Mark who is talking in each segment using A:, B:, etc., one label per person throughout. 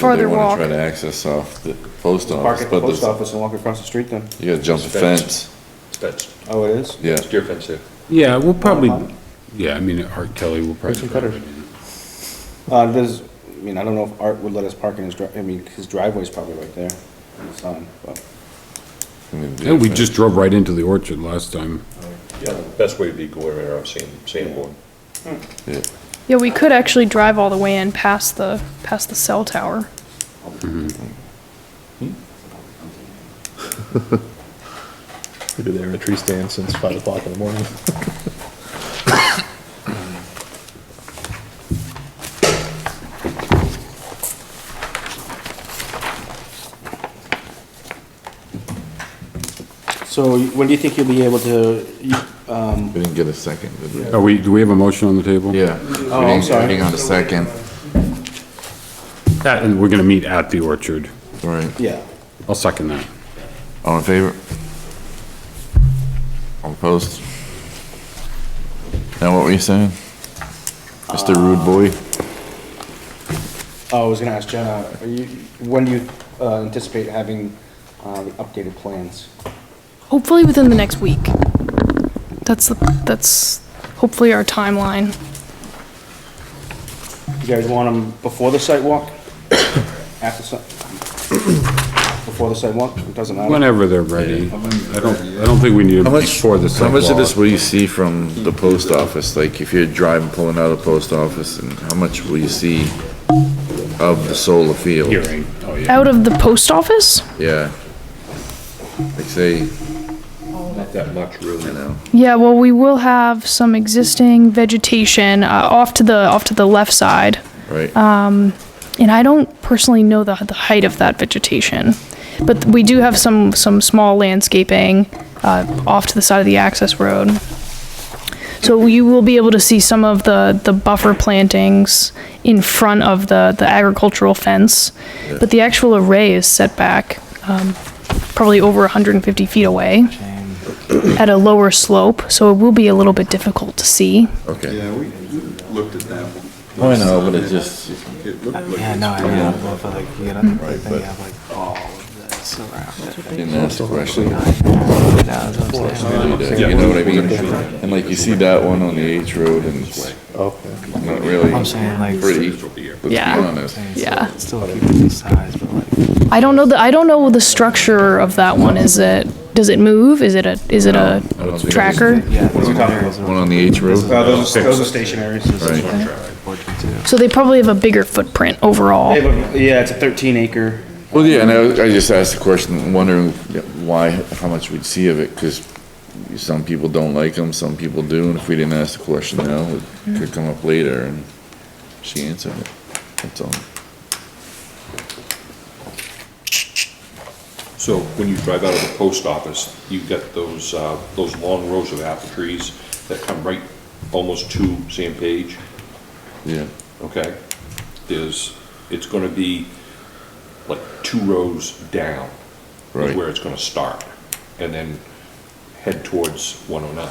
A: further walk.
B: They wanna try to access off the post
C: Park
B: office,
C: at the
B: but
C: post
B: there's-
C: office and walk across the street then.
B: you gotta jump the
D: Fence.
B: fence,
D: That's,
C: Oh, it is?
B: yeah.
D: it's your fence there.
E: Yeah, we'll probably, yeah, I mean, Art Kelly will probably.
C: some cutters.
E: drive it in.
C: Uh, there's, I mean, I don't know if Art would let us park in his dri, I mean, his driveway's probably right there. It's on, but,
E: Yeah, we just drove right into the orchard last time.
D: Yeah, Uh, best way would be go right around sand, sandboard.
B: Yeah.
A: Yeah, we could actually drive all the way in past the, past the cell tower.
F: We've been there in a tree stand since five o'clock in the morning.
C: so when do you think you'll be able to, you-
B: We didn't get a second, did we?
E: Are we, do we have a motion on the table?
B: Yeah.
C: Oh, I'm sorry.
B: Hang on a second,
E: That, and we're gonna meet at the orchard.
B: all right,
C: yeah.
E: I'll second that.
B: all in favor? All opposed? Now what were you saying? Mr. Rude Boy?
C: Oh, I was gonna ask Jenna, are you, when do you uh, anticipate having, uh, the updated plans?
A: Hopefully within the next week. That's, the that's hopefully our timeline.
C: You guys want them before the sidewalk? After si- Before the sidewalk? It doesn't matter.
E: Whenever they're ready. I don't, I don't think we need it before the
B: How much of this
E: sidewalk.
B: will you see from the post office? Like, if you're driving, pulling out of the post office, and how much will you see of the solar field?
E: Hearing, oh yeah.
A: Out of the post office?
B: Yeah. Like, say,
D: Not that much
B: you
D: really.
B: know,
A: Yeah, well, we will have some existing vegetation uh, off to the, off to the left side.
B: right?
G: Uh,
A: And I don't personally know the, the height of that vegetation. But we do have some, some small landscaping uh, off to the side of the access road. So you will be able to see some of the, the buffer plantings in front of the, the agricultural fence. But the actual array is set back um, probably over 150 feet away at a lower slope, so it will be a little bit difficult to see.
B: Okay.
H: Yeah, we we looked at that one.
B: I know, but it just,
H: It looked like
G: Yeah, no, I know, but, but like, you get on the plate, then you
B: but-
G: have like all of this around
B: I
G: it.
B: didn't ask the question.
G: Yeah, that's what I'm saying.
B: You know what I mean? And like, you see that one on the H road, and it's not really
G: I'm saying like,
B: pretty, let's be
A: Yeah.
B: honest.
A: Yeah.
G: still keep it the size, but like,
A: I don't know the I don't know the structure of that one. Is it does it move? Is it a is it a
B: I don't think
A: tracker?
G: yeah.
C: What are we talking about?
B: it's- One on the H road?
C: Uh, those are, those are stationaries.
B: Right.
A: So they probably have a bigger footprint overall.
C: They have a- Yeah, it's a thirteen acre.
B: Well, yeah, and I, I just asked the question, wondering why, how much we'd see of it, because some people don't like them, some people do, and if we didn't ask the question now, it could come up later, and she answered it. That's all.
D: So when you drive out of the post office, you've got those, uh, those long rows of apple trees that come right almost to San Page,
B: Yeah,
D: okay? There's, it's gonna be like two rows down is
B: Right.
D: where it's gonna start, and then head towards 109.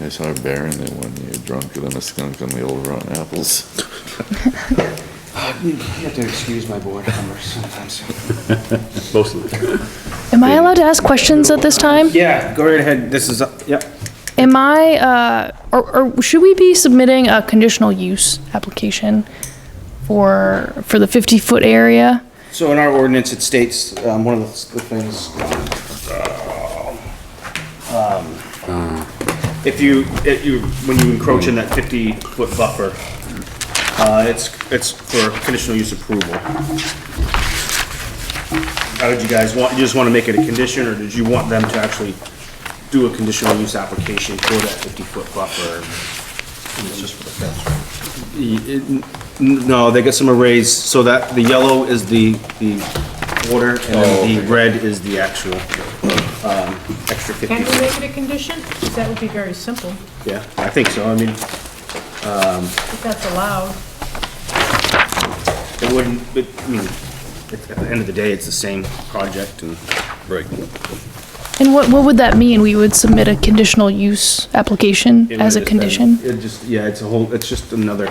B: I saw a bear in there one year, drunker than a skunk on the old rotten apples.
C: You have to excuse my board members sometimes.
F: Most of the time.
A: Am I allowed to ask questions at this time?
C: Yeah, go right ahead, this is, uh, yep.
A: Am I uh or, or should we be submitting a conditional use application for for the 50 foot area?
C: So in our ordinance, it states, um, one of the the things, if you, if you, when you encroach in that fifty-foot buffer, uh, it's, it's for conditional use approval. How did you guys want, you just wanna make it a condition, or did you want them to actually do a conditional use application for that fifty-foot buffer? Y- it- n- No, they got some arrays, so that, the yellow is the, the order, and then the red is the actual, um, extra fifty.
I: Can we make it a condition? That would be very simple,
C: Yeah, I think so, I mean,
I: if that's allowed.
C: it wouldn't, but, I mean, at the end of the day, it's the same project and. Right.
A: And what what would that mean? We would submit a conditional use application as a condition?
C: It just, yeah, it's a whole, it's just another